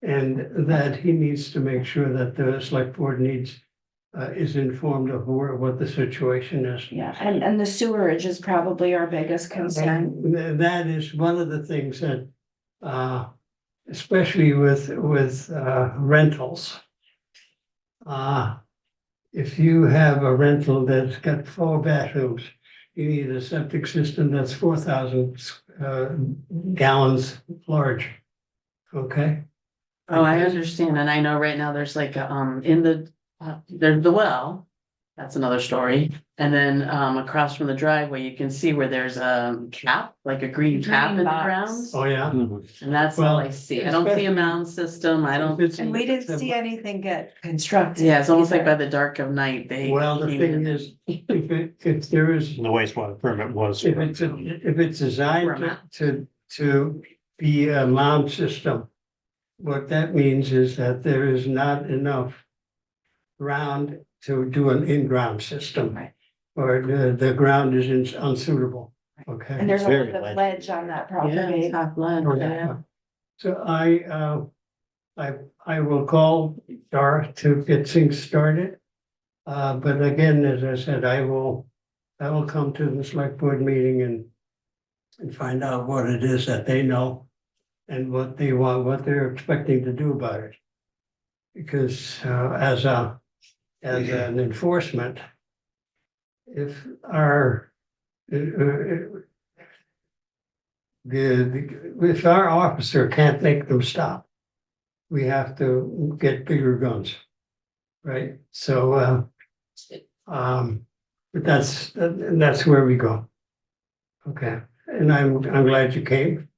And that he needs to make sure that the select board needs, uh, is informed of where, what the situation is. Yeah, and, and the sewerage is probably our biggest concern. And th- that is one of the things that, uh, especially with, with uh, rentals. Uh, if you have a rental that's got four bathrooms, you need a septic system that's four thousand, uh, gallons large. Okay? Oh, I understand, and I know right now there's like, a, um, in the, uh, there's the well. That's another story, and then, um, across from the driveway, you can see where there's a cap, like a green cap in the Green box. ground. Oh, yeah? And that's all I Well, see, I don't see a mound system, I don't, It's- And we didn't see anything get constructed. yeah, it's almost like by either. the dark of night, they. Well, the came thing in. is, if it, if there is, The wastewater permit was. if it's, if it's designed to- to, to be a mound system. What that means is that there is not enough ground to do an in-ground system. Right. Or the, the ground is ins- unsuitable, okay? And there's a Very lot of ledgy. ledge on that Yeah, property. top left, Or- yeah. So I, uh, I, I will call Dara to get things started. Uh, but again, as I said, I will, I will come to the select board meeting and and find out what it is that they know and what they want, what they're expecting to do about it. Because, uh, as a, as an enforcement, if our, uh, uh, the, the- if our officer can't make them stop, we have to get bigger guns. Right, so, uh, um, but that's, and that's where we go. Okay, and I'm, I'm glad you came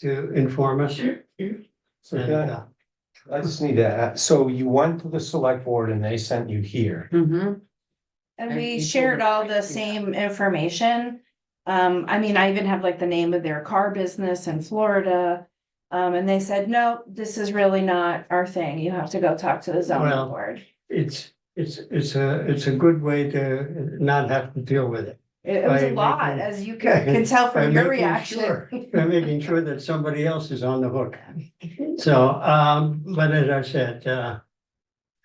to inform us. So And, can I, uh, I just need to, ask- so you went to the select board and they sent you here. And Mhm. And we people shared were all trying the to do that. same information. Um, I mean, I even have like the name of their car business in Florida. Um, and they said, no, this is really not our thing. You have to go talk to the Well, zoning board. It's, it's, it's a, it's a good way to not have to deal with it. It it was by a lot, making- as you can, can tell by from your making reaction. sure- By making sure that somebody else is on the hook. So, um, but as I said, uh,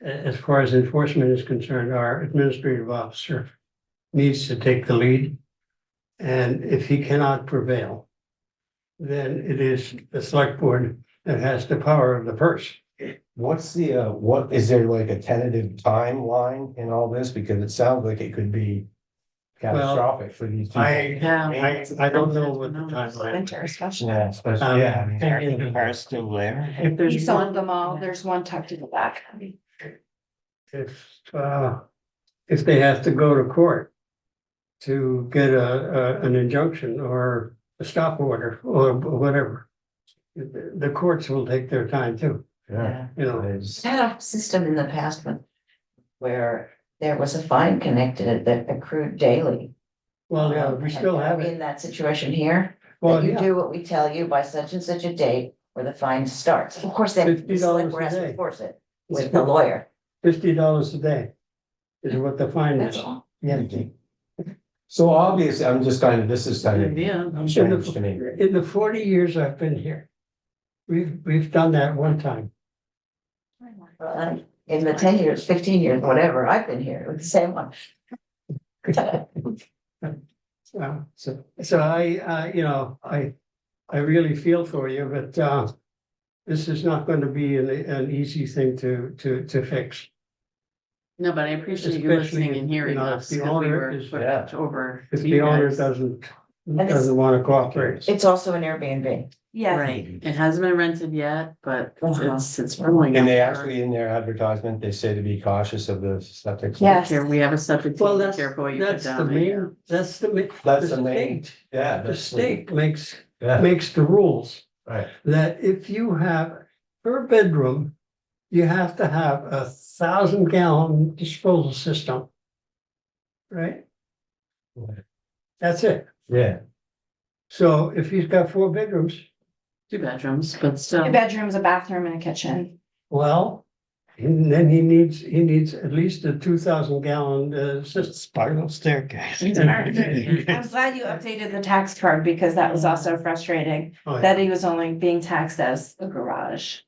a- as far as enforcement is concerned, our administrative officer needs to take the lead. And if he cannot prevail, then it is the select board that has the power of the purse. What's the, uh, what, is there like a tentative timeline in all this? Because it sounds like it could be catastrophic for these people. I, Yeah. I, I don't know what the timeline. Winter especially. Yeah, especially, Um, yeah. I mean, Is the car still there? If He there's sold one, them all. There's one tucked in the back. If, uh, if they have to go to court to get a, a, an injunction or a stop order or whatever. The the courts will take their time too, Yeah. you know. It's- I had a system in the past when, where there was a fine connected that accrued daily. Well, yeah, we still have Are we it. In that situation here, Well, that you yeah, do what we tell you by such and such a date where the fine starts. Of course, then $50 the select board a has to day. enforce it with the lawyer. fifty dollars a day is what the fine That's is. all. Yeah. So obviously, I'm just kind of, this is kind of yeah, strange to me. In the forty years I've been here, we've, we've done that one time. Well, and In the ten years, fifteen years, whatever, I've been here with the same one. Uh, so, so I, uh, you know, I, I really feel for you, but, uh, this is not going to be an, an easy thing to, to, to fix. no, but I appreciate you Especially listening and if, hearing you know, us, if the 'cause we owner were is- put Yeah. over. If to the you owner guys. doesn't, it's- doesn't want to cooperate. It's also an Airbnb. Yes. Right, it hasn't been rented yet, but Uh-huh. it's, it's rolling. And out they there. actually, in their advertisement, they say to be cautious of the septic. Yeah. Here, we have a subject, Well, be that's, careful what you put that's the down. main, that's the main. That's the main- state- Yeah. The that's- state makes, Yeah, makes the rules. right. that if you have per bedroom, you have to have a thousand gallon disposal system. Right? Right. That's it. Yeah. So if he's got four bedrooms, Two bedrooms, but still. Two bedrooms, a bathroom and a kitchen. well, and then he needs, he needs at least a two thousand gallon uh system. Spiral staircase. I'm glad you updated the tax card because that was also frustrating, Oh, yeah. that he was only being taxed as a garage.